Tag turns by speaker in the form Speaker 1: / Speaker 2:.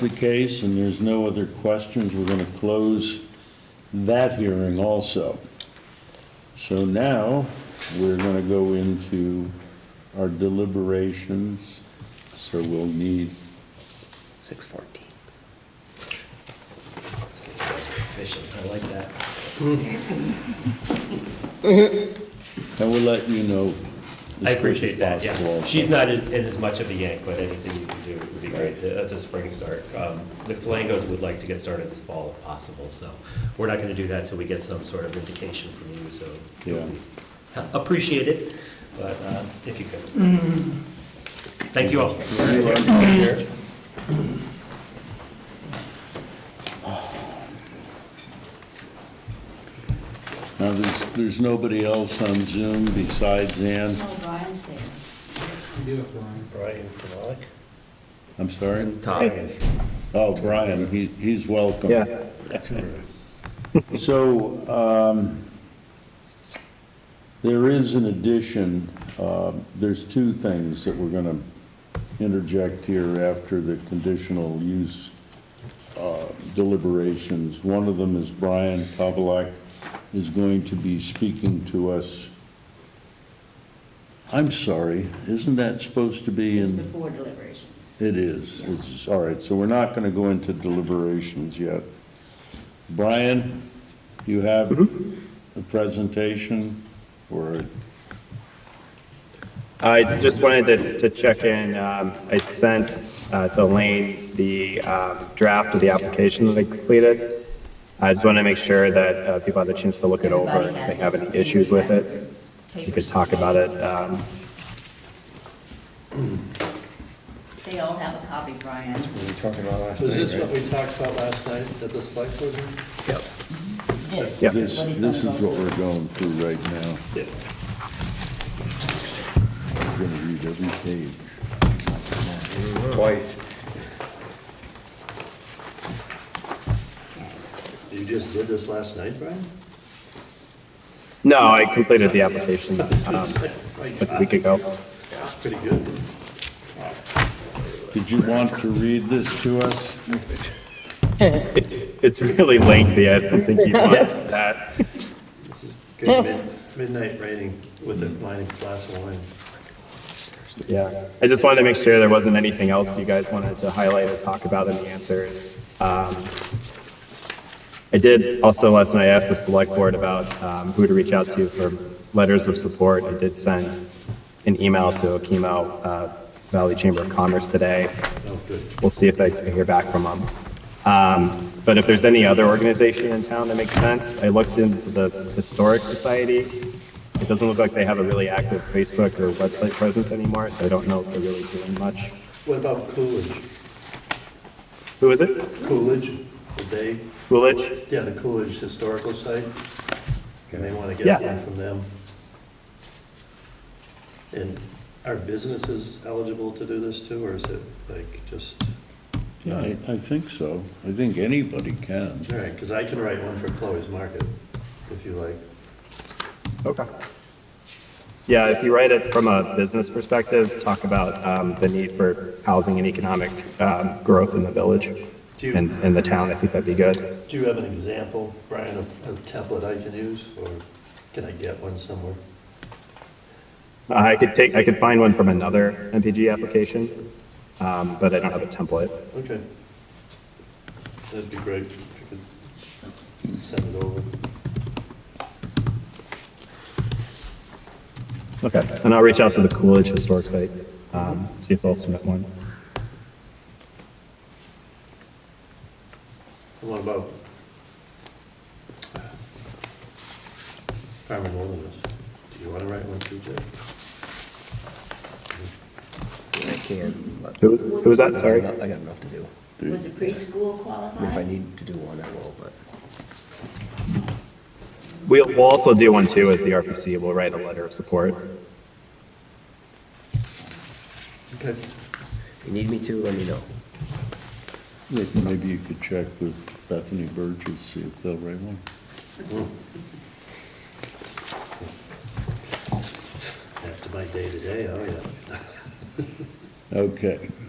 Speaker 1: the case and there's no other questions, we're going to close that hearing also. So now, we're going to go into our deliberations, so we'll need,
Speaker 2: Six fourteen. Efficient, I like that.
Speaker 1: and we'll let you know. as
Speaker 3: I appreciate
Speaker 1: quick as
Speaker 3: that, yeah.
Speaker 1: possible.
Speaker 3: She's not in in as much of a yank, but anything you can do would be great. That's a spring start. Um, The Flangos would like to get started this fall if possible, so we're not going to do that till we get some sort of indication from you, so.
Speaker 1: Yeah.
Speaker 3: Appreciate it, but uh, if you could. Thank you all.
Speaker 1: Now, there's, there's nobody else on Zoom besides Ann.
Speaker 4: No, Brian's there.
Speaker 2: Brian Kamalik?
Speaker 1: I'm sorry?
Speaker 2: Tom.
Speaker 1: Oh, Brian, he, he's welcome. So, um, there is an addition, uh, there's two things that we're gonna interject here after the conditional use uh, deliberations. One of them is Brian Kovalek is going to be speaking to us. I'm sorry, isn't that supposed to be
Speaker 4: It's
Speaker 1: in?
Speaker 4: before deliberations.
Speaker 1: It is, it's, all right, so we're not gonna go into deliberations yet. Brian, you have a presentation, or,
Speaker 5: I just wanted to, to check in. Um, I sent uh, to Elaine the um, draft of the application that I completed. I just want to make sure that uh, people have the chance to look it over. If
Speaker 4: Everybody has
Speaker 5: they have any
Speaker 4: it.
Speaker 5: issues with it, you could talk about it. Um,
Speaker 4: They all have a copy, Brian.
Speaker 2: We were talking about last
Speaker 6: Was this
Speaker 2: night,
Speaker 6: what
Speaker 2: right?
Speaker 6: we talked about last night at the select board meeting?
Speaker 4: This,
Speaker 5: Yeah.
Speaker 1: this,
Speaker 4: what he's
Speaker 1: this
Speaker 4: gonna
Speaker 1: is
Speaker 4: go
Speaker 1: what we're
Speaker 4: through.
Speaker 1: going through right now. I'm gonna read every page.
Speaker 2: Twice.
Speaker 6: You just did this last night, Brian?
Speaker 5: no, I completed the application um,
Speaker 6: My
Speaker 5: like a
Speaker 6: God,
Speaker 5: week ago.
Speaker 6: that's pretty good.
Speaker 1: Did you want to read this to us?
Speaker 5: It, it's really lengthy. I don't think you'd want that.
Speaker 6: This is good mid- midnight raining with a wine, glass of wine.
Speaker 5: Yeah, I just wanted to make sure there wasn't anything else you guys wanted to highlight or talk about in the answers. Um, I did also last night ask the select board about um, who to reach out to for letters of support. I did send an email to Okemo uh, Valley Chamber of Commerce today.
Speaker 6: Oh, good.
Speaker 5: We'll see if I can hear back from them. Um, But if there's any other organization in town that makes sense, I looked into the Historic Society. It doesn't look like they have a really active Facebook or website presence anymore, so I don't know if they're really doing much.
Speaker 6: What about Coolidge?
Speaker 5: Who is it?
Speaker 6: Coolidge, did they,
Speaker 5: Coolidge?
Speaker 6: yeah, the Coolidge Historical Site? You may want to
Speaker 5: Yeah.
Speaker 6: get one from them. And are businesses eligible to do this too, or is it like just?
Speaker 1: Yeah, I, I think so. I think anybody can.
Speaker 6: All right, because I can write one for Chloe's Market, if you like.
Speaker 5: Okay. Yeah, if you write it from a business perspective, talk about um, the need for housing and economic um, growth in the village
Speaker 6: Do you-
Speaker 5: and in the town. I think that'd be good.
Speaker 6: Do you have an example, Brian, of of template I can use, or can I get one somewhere?
Speaker 5: Uh, I could take, I could find one from another MPG application, um, but I don't have a template.
Speaker 6: Okay. That'd be great if you could send it over.
Speaker 5: Okay, and I'll reach out to the Coolidge Historic Site, um, see if they'll submit one.
Speaker 6: And What about farm and wilderness? Do you want to write one too, Jay?
Speaker 2: I can, but.
Speaker 5: Who was, who was that? Sorry.
Speaker 2: I got enough to do.
Speaker 4: Would the preschool
Speaker 2: I mean, If I
Speaker 4: qualify?
Speaker 2: need to do one, I will, but.
Speaker 5: We'll, we'll also do one too as the RPC. We'll write a letter of support.
Speaker 6: Okay.
Speaker 2: If you need me to, let me know.
Speaker 1: Rick, Maybe you could check with Bethany Burgess, see if they'll write one.
Speaker 6: After my day today, oh yeah.
Speaker 1: Okay,